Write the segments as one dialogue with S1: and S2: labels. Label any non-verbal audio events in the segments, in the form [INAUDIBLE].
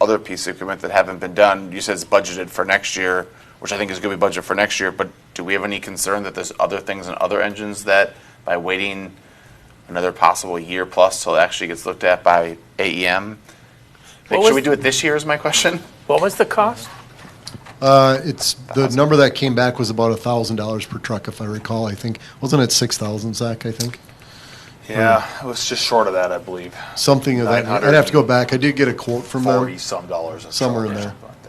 S1: other piece of equipment that haven't been done. You said it's budgeted for next year, which I think is going to be budgeted for next year, but do we have any concern that there's other things in other engines that by waiting another possible year plus till it actually gets looked at by AEM? Like,
S2: What
S1: should
S2: was-
S1: we do it this year is my question?
S2: What was the cost?
S3: Uh, It's, the number that came back was about $1,000 per truck, if I recall, I think. Wasn't it 6,000, Zach, I think?
S4: Yeah, it was just short of that, I believe.
S3: Something of that, I'd have to go back. I did get a quote from
S4: Forty
S3: them.
S4: some dollars. a
S3: Somewhere
S4: truck
S3: in
S4: or
S3: there.
S4: something like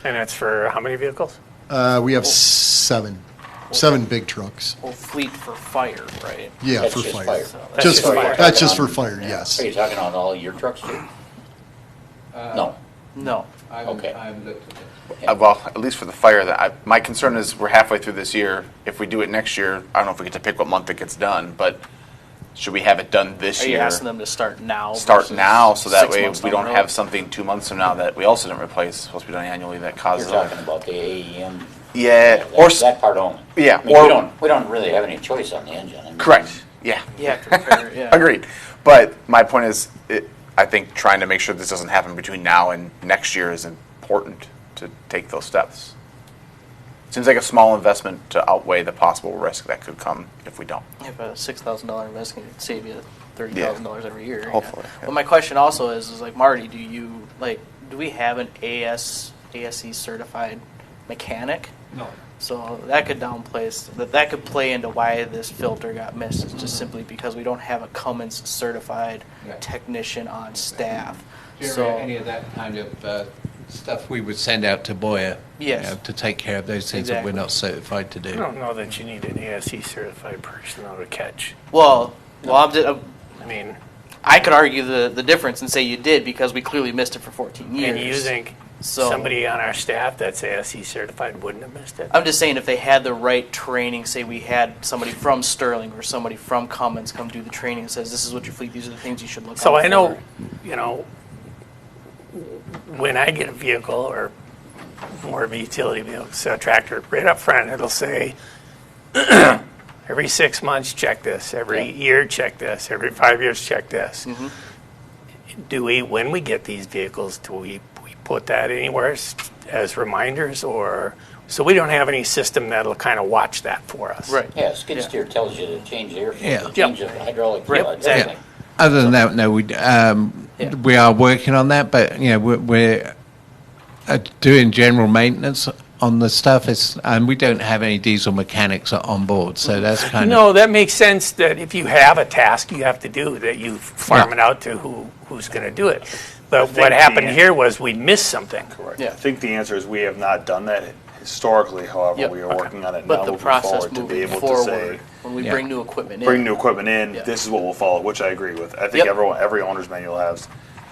S4: that.
S2: And that's for how many vehicles?
S3: Uh, We have seven, seven big trucks.
S5: Well, fleet for fire, right?
S3: Yeah,
S6: That's
S3: for
S6: just
S3: fire.
S6: fire.
S2: That's
S3: Just,
S2: just
S3: for
S2: fire.
S3: that's just for fire, yes.
S6: Are you talking on all your trucks too? No.
S5: No.
S7: I
S6: Okay.
S7: haven't, I haven't looked at it.
S1: Uh, Well, at least for the fire, that I, my concern is we're halfway through this year. If we do it next year, I don't know if we get to pick what month it gets done, but should we have it done this
S5: Are
S1: year?
S5: you asking them to start now?
S1: Start
S5: versus
S1: now, so that
S5: six
S1: way
S5: months
S1: we
S5: down
S1: don't
S5: the
S1: have
S5: road?
S1: something two months from now that we also didn't replace, supposed to be done annually, that
S6: You're
S1: causes.
S6: talking about the AEM.
S1: Yeah,
S6: that-
S1: or, s-
S6: That part only.
S1: Yeah,
S6: I mean,
S1: or-
S6: we don't, we don't really have any choice on the engine. I mean,
S1: correct, yeah. [LAUGHS]
S5: Yeah, compare, yeah.
S1: Agreed. But my point is, it, I think trying to make sure this doesn't happen between now and next year is important to take those steps. Seems like a small investment to outweigh the possible risk that could come if we don't.
S5: If a six thousand dollar investment can save you thirty thousand dollars every year. you know.
S1: Hopefully, yeah.
S5: But my question also is, is like Marty, do you like do we have an AS ASE E certified mechanic?
S7: No.
S5: So that could downplace that that could play into why this filter got missed. It's just simply because we don't have a Cummins certified
S7: Yeah.
S5: technician on staff.
S7: Jerry,
S5: so
S7: any of that kind of uh, stuff we would send out to Boyer? you
S5: Yes.
S7: know, To take care of those things that we're
S5: Exactly.
S7: not certified to
S2: I
S7: do.
S2: don't know that you need an ASC certified person on a catch.
S5: well, well, I'm just,
S2: I mean,
S5: I could argue the the difference and say you did because we clearly missed it for 14 years.
S2: and you think
S5: So-
S2: somebody on our staff that's ASC certified wouldn't have missed it?
S5: I'm just saying if they had the right training, say we had somebody from Sterling or somebody from Cummins come do the training and says this is what your fleet, these are the things you should look.
S2: So
S5: out
S2: I know,
S5: for."
S2: you know, when I get a vehicle or more of a utility vehicle, so a tractor, right up front, it'll say, [CLEARS THROAT] every six months, check this, every
S6: Yeah.
S2: year, check this, every five years, check this. Do we, when we get these vehicles, do we, we put that anywhere as, as reminders or, so we don't have any system that'll kind of watch that for us?
S5: Right.
S6: Yeah, skid
S5: Yeah.
S6: steer tells you to change the air
S7: Yeah.
S6: filter, change the hydraulic.
S5: Right,
S6: fluid,
S5: exactly.
S6: everything.
S7: Other than that, no, we, d- um,
S5: Yeah.
S7: we are working on that, but, you know, we're, we're uh, doing general maintenance on the stuff, it's, and we don't have any diesel mechanics on board, so that's kind of.
S2: No, that makes sense that if you have a task you have to do, that you farm
S7: Yeah.
S2: it out to who, who's going to do it. But what happened here was we missed something.
S4: Correct.
S5: Yeah.
S4: I think the answer is we have not done that historically, however,
S5: Yep.
S4: we are working on it now
S5: But the
S4: moving
S5: process
S4: forward to be
S5: moving
S4: able to
S5: forward
S4: say,
S5: when we
S7: Yeah.
S5: bring new equipment in.
S4: bring new equipment in,
S5: Yeah.
S4: this is what we'll follow, which I agree with. I
S5: Yep.
S4: think everyone, every owner's manual has,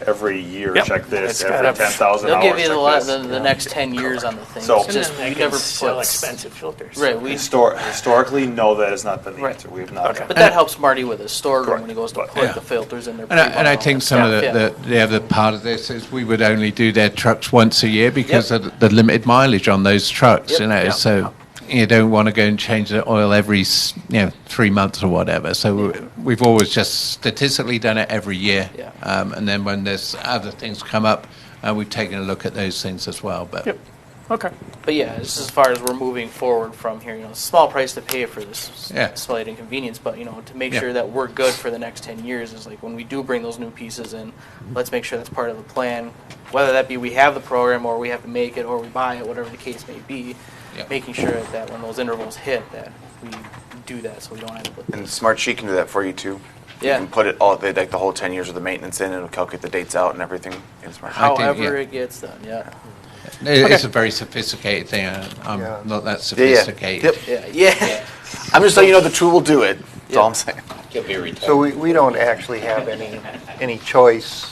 S4: every year,
S2: Yep.
S4: check
S2: It's
S4: this,
S2: gotta-
S4: every ten thousand
S5: They'll
S4: hours,
S5: give you the,
S4: check
S5: la- the,
S4: this.
S5: the next 10 years on the thing.
S4: So-
S5: It's just you never
S2: sell
S5: put-
S2: expensive filters.
S5: Right, we
S4: Histor- Historically, no, that has not been the
S5: Right.
S4: answer. We have not.
S2: Okay.
S4: done
S5: But
S4: that.
S5: that helps Marty with his storeroom when he
S4: Correct.
S5: goes to
S4: But-
S5: put
S7: Yeah.
S5: the filters in there.
S7: And I, and I think some of the, the, the other part of this is we would only do their trucks once a year because
S5: Yep.
S7: of the limited mileage on those trucks,
S5: Yep.
S7: you know.
S2: Yeah.
S7: So you don't want to go and change the oil every, s- you know, three months or whatever. So we- we've always just statistically done it every year.
S5: Yeah.
S7: Um, and then when there's other things come up, uh, we've taken a look at those things as well. But
S2: Yep. Okay.
S5: But yeah, just as far as we're moving forward from here, you know, small price to pay for this
S7: Yeah.
S5: slight inconvenience, but you know, to make
S7: Yeah.
S5: sure that we're good for the next ten years is like when we do bring those new pieces in,
S7: Mm-hmm.
S5: let's make sure that's part of the plan. Whether that be we have the program or we have to make it or we buy it, whatever the case may be,
S7: Yeah.
S5: making sure that when those intervals hit that we do that so we don't end up with
S1: And Smart Sheet can do that for you too.
S5: Yeah.
S1: You can put it all, they, like the whole ten years of the maintenance in, and it'll calculate the dates out and everything in Smart Sheet.
S7: How- think,
S5: however
S7: yeah.
S5: it gets done, yeah.
S7: it- it's a very sophisticated thing. I- I'm
S3: Yeah.
S7: not that
S1: Yeah, yeah.
S7: sophisticated.
S1: Yep.
S5: Yeah, yeah.
S1: I'm just letting you know the tool will do it, that's all I'm saying.
S6: You'll be retired.
S8: So we, we don't actually have any, any choice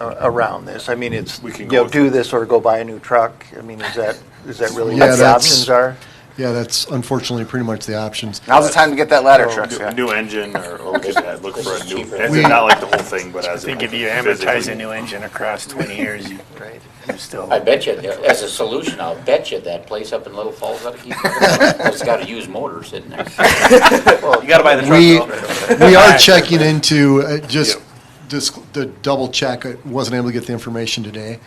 S8: a- around this. I mean, it's,
S4: We can
S8: you
S4: go
S8: know,
S4: with
S8: do this or go buy a new truck. I mean, is that, is that really
S3: Yeah,
S8: what the
S3: that's-
S8: options are?
S3: Yeah, that's unfortunately pretty much the
S4: [LAUGHS]
S3: options.
S1: Now's the time to get that ladder truck,
S4: New-
S1: Scott.
S4: New engine, or, or we could add- look for a new,
S6: Cheaper.
S4: it's
S3: We-
S4: not like the whole thing, but as.
S2: I think if you amortize a new engine across 20 [LAUGHS] years, you,
S8: Right.
S2: you still.
S6: I bet you, there- as a solution, I'll bet you that place up in Little Falls, ought to keep-
S1: [LAUGHS]
S6: it's got a used motor sitting there.
S5: You gotta buy the truck
S3: We,
S5: though.
S3: we are checking into, uh, just, just to double check, I wasn't able to get the information today.